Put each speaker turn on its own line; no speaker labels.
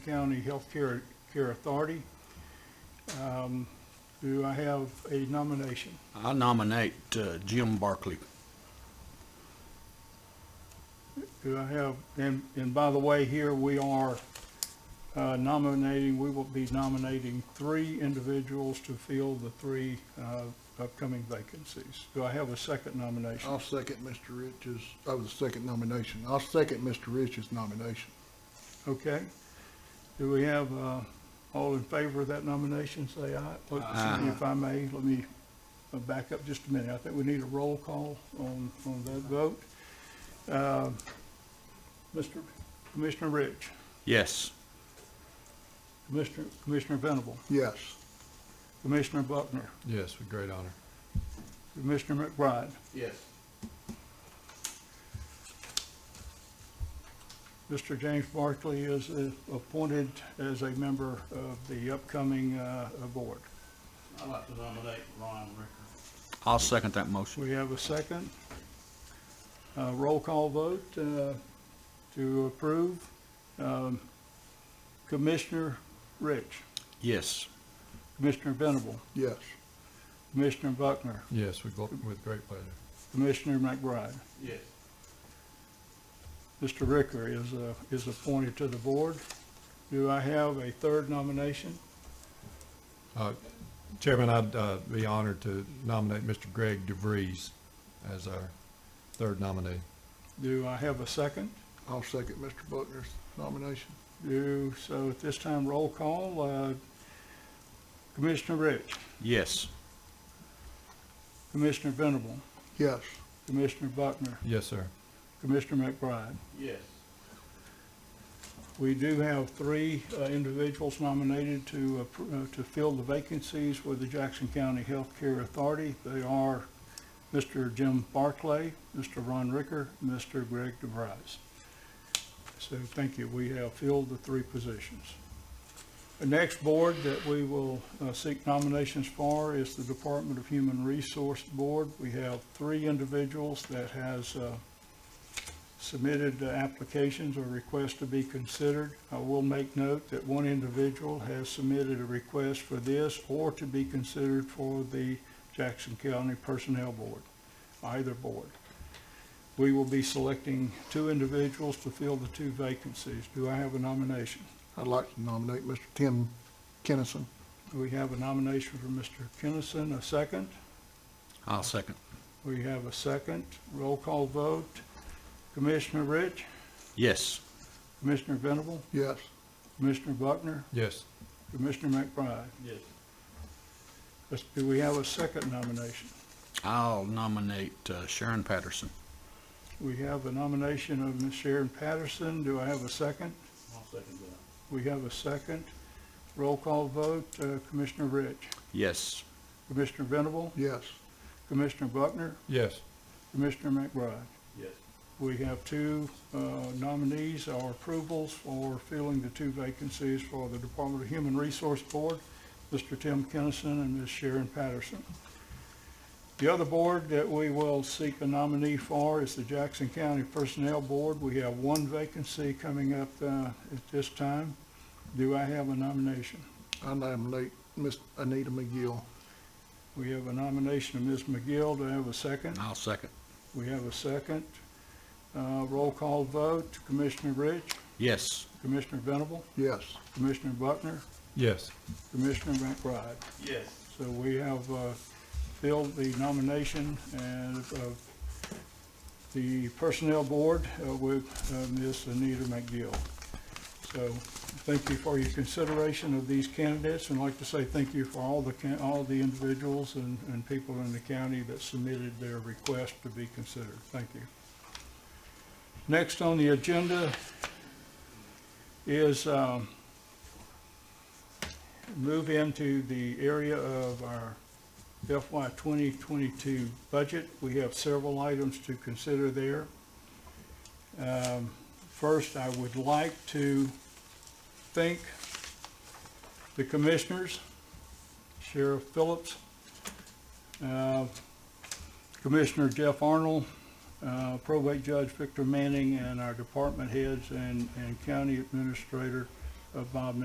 County Healthcare Care Authority. Um, Do I have a nomination?
I nominate uh, Jim Barkley.
Do I have, and, and by the way, here we are uh, nominating, we will be nominating three individuals to fill the three uh, upcoming vacancies. Do I have a second nomination?
I'll second Mr. Rich's, oh, the second nomination. I'll second Mr. Rich's nomination.
Okay. Do we have, uh, all in favor of that nomination, say aye? Look,
Aye.
If I may, let me uh, back up just a minute. I think we need a roll call on, on that vote. Uh, Mr. Commissioner Rich,
Yes.
Commissioner, Commissioner Venable,
Yes.
Commissioner Buckner,
Yes, with great honor.
Commissioner McBride,
Yes.
Mr. James Barkley is uh, appointed as a member of the upcoming uh, uh, board.
I'd like to nominate Ron Ricker.
I'll second that motion.
We have a second. Uh, Roll call vote uh, to approve. Um, Commissioner Rich,
Yes.
Commissioner Venable,
Yes.
Commissioner Buckner,
Yes, with, glo- with great pleasure.
Commissioner McBride.
Yes.
Mr. Ricker is, uh, is appointed to the board. Do I have a third nomination?
Uh, Chairman, I'd uh, be honored to nominate Mr. Greg DeVries as our third nominee.
Do I have a second?
I'll second Mr. Buckner's nomination.
Do, so at this time, roll call. uh, Commissioner Rich,
Yes.
Commissioner Venable,
Yes.
Commissioner Buckner,
Yes, sir.
Commissioner McBride.
Yes.
We do have three uh, individuals nominated to, appro- uh, to fill the vacancies with the Jackson County Health Care Authority. They are Mr. Jim Barclay, Mr. Ron Ricker, Mr. Greg DeVries. So thank you. We have filled the three positions. The next board that we will uh, seek nominations for is the Department of Human Resource Board. We have three individuals that has uh, submitted uh, applications or requests to be considered. I will make note that one individual has submitted a request for this or to be considered for the Jackson County Personnel Board, either board. We will be selecting two individuals to fill the two vacancies. Do I have a nomination?
I'd like to nominate Mr. Tim Kennison.
We have a nomination for Mr. Kennison, a second.
I'll second.
We have a second. Roll call vote. Commissioner Rich,
Yes.
Commissioner Venable,
Yes.
Commissioner Buckner,
Yes,
Commissioner McBride.
Yes.
Let's- Do we have a second nomination?
I'll nominate uh, Sharon Patterson.
We have a nomination of Ms. Sharon Patterson. Do I have a second?
I'll second that.
We have a second. Roll call vote, uh, Commissioner Rich,
Yes.
Commissioner Venable,
Yes.
Commissioner Buckner,
yes.
Commissioner McBride.
Yes.
We have two uh, nominees or approvals for filling the two vacancies for the Department of Human Resource Board, Mr. Tim Kennison and Ms. Sharon Patterson. The other board that we will seek a nominee for is the Jackson County Personnel Board. We have one vacancy coming up uh, at this time. Do I have a nomination?
I nominate Miss Anita McGill.
We have a nomination of Ms. McGill. Do I have a second?
I'll second.
We have a second. Uh, Roll call vote, Commissioner Rich?
Yes.
Commissioner Venable,
Yes.
Commissioner Buckner,
Yes,
Commissioner McBride.
Yes.
So we have uh, filled the nomination and of the Personnel Board uh, with uh, Ms. Anita McGill. So thank you for your consideration of these candidates, and I'd like to say thank you for all the, can- all the individuals and, and people in the county that submitted their request to be considered. Thank you. Next on the agenda is, um, move into the area of our FY 2022 budget. We have several items to consider there. Um, First, I would like to thank the commissioners, Sheriff Phillips, uh, Commissioner Jeff Arnold, uh, Probate Judge Victor Manning, and our department heads and and county administrator of Bob